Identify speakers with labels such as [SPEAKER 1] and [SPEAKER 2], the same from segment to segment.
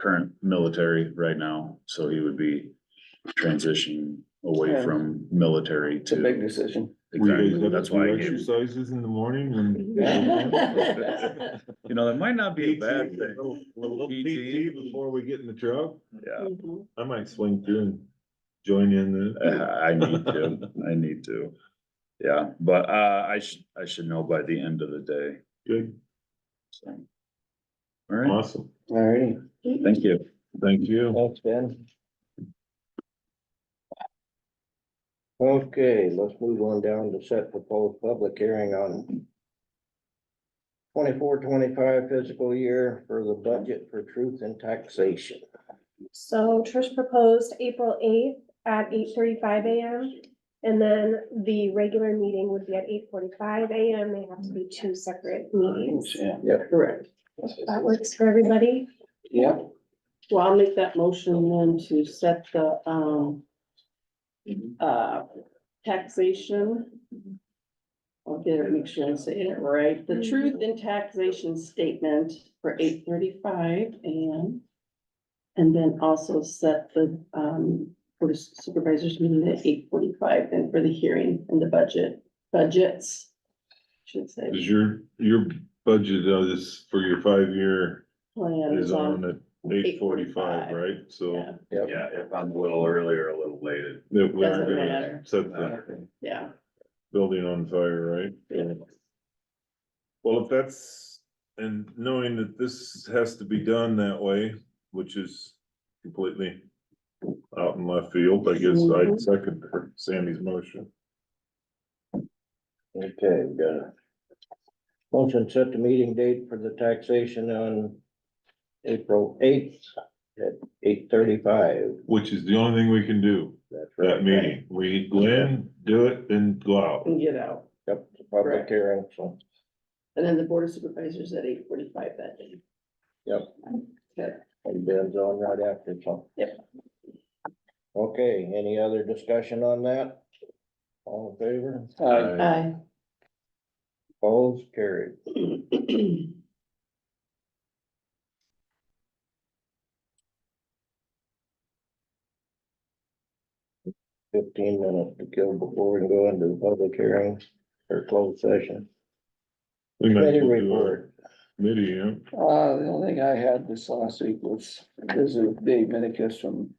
[SPEAKER 1] current military right now, so he would be transitioning away
[SPEAKER 2] Yeah.
[SPEAKER 1] from military
[SPEAKER 2] It's a big
[SPEAKER 1] to.
[SPEAKER 2] decision.
[SPEAKER 3] Were you guys
[SPEAKER 1] Exactly,
[SPEAKER 3] up
[SPEAKER 1] that's
[SPEAKER 3] to
[SPEAKER 1] why I
[SPEAKER 3] do
[SPEAKER 1] gave, him-
[SPEAKER 3] exercises in the morning
[SPEAKER 2] Yeah.
[SPEAKER 3] and?
[SPEAKER 1] you know, that might not be a bad thing,
[SPEAKER 3] Little- Little
[SPEAKER 1] PT.
[SPEAKER 3] PT before we get in the truck,
[SPEAKER 1] yeah.
[SPEAKER 4] Mm-hmm.
[SPEAKER 3] I might swing through and join in
[SPEAKER 1] Uh,
[SPEAKER 3] the.
[SPEAKER 1] I need to, I need to. Yeah, but uh, I should, I should know by the end of the day,
[SPEAKER 3] Good,
[SPEAKER 1] so. All right,
[SPEAKER 3] awesome,
[SPEAKER 2] All righty.
[SPEAKER 1] thank you.
[SPEAKER 3] thank you.
[SPEAKER 2] Thanks, Ben. Okay, let's move on down to set proposed public hearing on twenty-four, twenty-five fiscal year for the budget for truth and taxation.
[SPEAKER 5] So Trish proposed April eighth at eight thirty-five AM. And then the regular meeting would be at eight forty-five AM. They have to be two separate meetings.
[SPEAKER 2] Yeah, correct.
[SPEAKER 5] That works for everybody.
[SPEAKER 2] Yeah.
[SPEAKER 4] Well, I'll make that motion then to set the, um, uh, taxation. I'll get it, make sure I'm saying it right. The truth in taxation statement for eight thirty-five AM. And then also set the, um, Board of supervisors meeting at eight forty-five and for the hearing and the budget, budgets. Should say
[SPEAKER 3] Is your, your budget on this for your five-year
[SPEAKER 4] plan.
[SPEAKER 3] is on at eight forty-five,
[SPEAKER 4] 8:45,
[SPEAKER 3] right? So
[SPEAKER 4] Yeah,
[SPEAKER 1] Yeah, if I'm a little early or a little late.
[SPEAKER 3] that we are
[SPEAKER 4] Doesn't
[SPEAKER 3] gonna
[SPEAKER 4] matter.
[SPEAKER 3] set the
[SPEAKER 4] yeah.
[SPEAKER 3] building on fire, right? Well, if that's, and knowing that this has to be done that way, which is completely out in left field, I guess I'd second her- Sandy's motion.
[SPEAKER 2] Okay, we got it. Motion set the meeting date for the taxation on April eighth at eight thirty-five.
[SPEAKER 3] Which is the only thing we can do,
[SPEAKER 2] That's right.
[SPEAKER 3] that meeting. We go in, do it, then go out.
[SPEAKER 4] and get out.
[SPEAKER 2] Yep, the public
[SPEAKER 4] Correct.
[SPEAKER 2] hearing, so.
[SPEAKER 4] And then the board of supervisors at eight forty-five that day.
[SPEAKER 2] Yep.
[SPEAKER 4] Okay,
[SPEAKER 2] And Ben's on right after, so.
[SPEAKER 4] Yep.
[SPEAKER 2] Okay, any other discussion on that? All in favor?
[SPEAKER 1] Uh,
[SPEAKER 2] Uh,
[SPEAKER 4] aye.
[SPEAKER 2] Opposed, carried. Fifteen minutes to kill before we can go into the public hearing or closed session.
[SPEAKER 3] We might as
[SPEAKER 2] Committee
[SPEAKER 3] well do our
[SPEAKER 2] report.
[SPEAKER 3] Committee, yeah.
[SPEAKER 6] Uh, the only thing I had this last week was visit with Dave Minikis from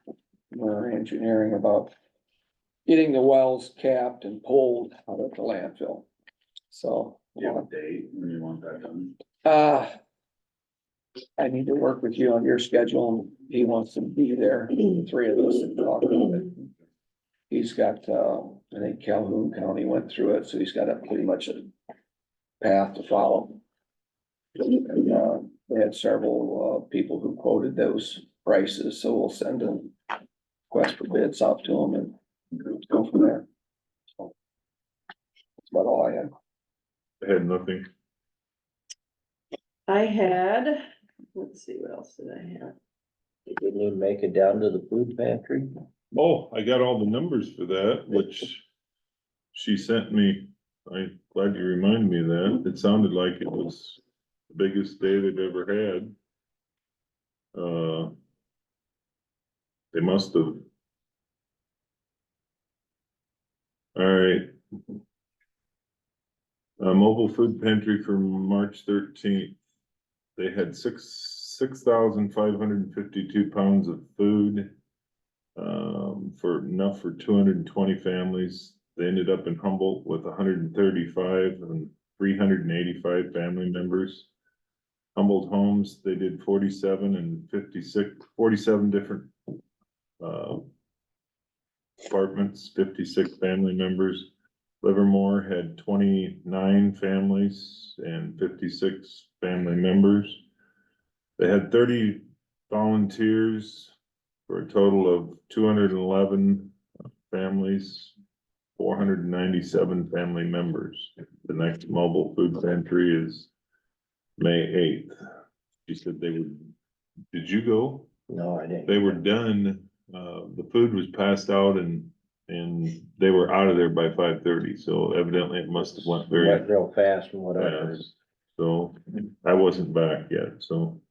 [SPEAKER 6] Murray Engineering about getting the wells capped and pulled out of the landfill. So,
[SPEAKER 1] Do you have a date when you want that done?
[SPEAKER 6] uh, I need to work with you on your schedule. and He wants to be there, the three of us and talk about it. He's got, uh, I think Calhoun County went through it, so he's got a pretty much a path to follow. And, uh, they had several, uh, people who quoted those prices, so we'll send a request for bids out to them and go from there. So, That's about all I had.
[SPEAKER 3] I had nothing.
[SPEAKER 4] I had, let's see, what else did I have?
[SPEAKER 2] Did we need to make it down to the food pantry?
[SPEAKER 3] Oh, I got all the numbers for that, which she sent me. I'm glad you reminded me of that. It sounded like it was the biggest day they've ever had. Uh, they must have. All right. Uh, mobile food pantry for March thirteenth. They had six, six thousand five hundred and fifty-two pounds of food um, for enough for two hundred and twenty families. They ended up in Humboldt with hundred and thirty-five and three hundred and eighty-five family members. Humboldt Homes, they did forty-seven and 56 47 different, uh, apartments, fifty-six family members. Livermore had twenty-nine families and fifty-six family members. They had thirty volunteers, for a total of two hundred and eleven families, four hundred and ninety-seven family members. The next mobile food pantry is May eighth. She said they would, did you go?
[SPEAKER 2] No, I didn't.
[SPEAKER 3] They were done, uh, the food was passed out and, and they were out of there by five thirty, so evidently it must have went very
[SPEAKER 2] Went real fast and whatever.
[SPEAKER 3] fast. So I wasn't back yet, so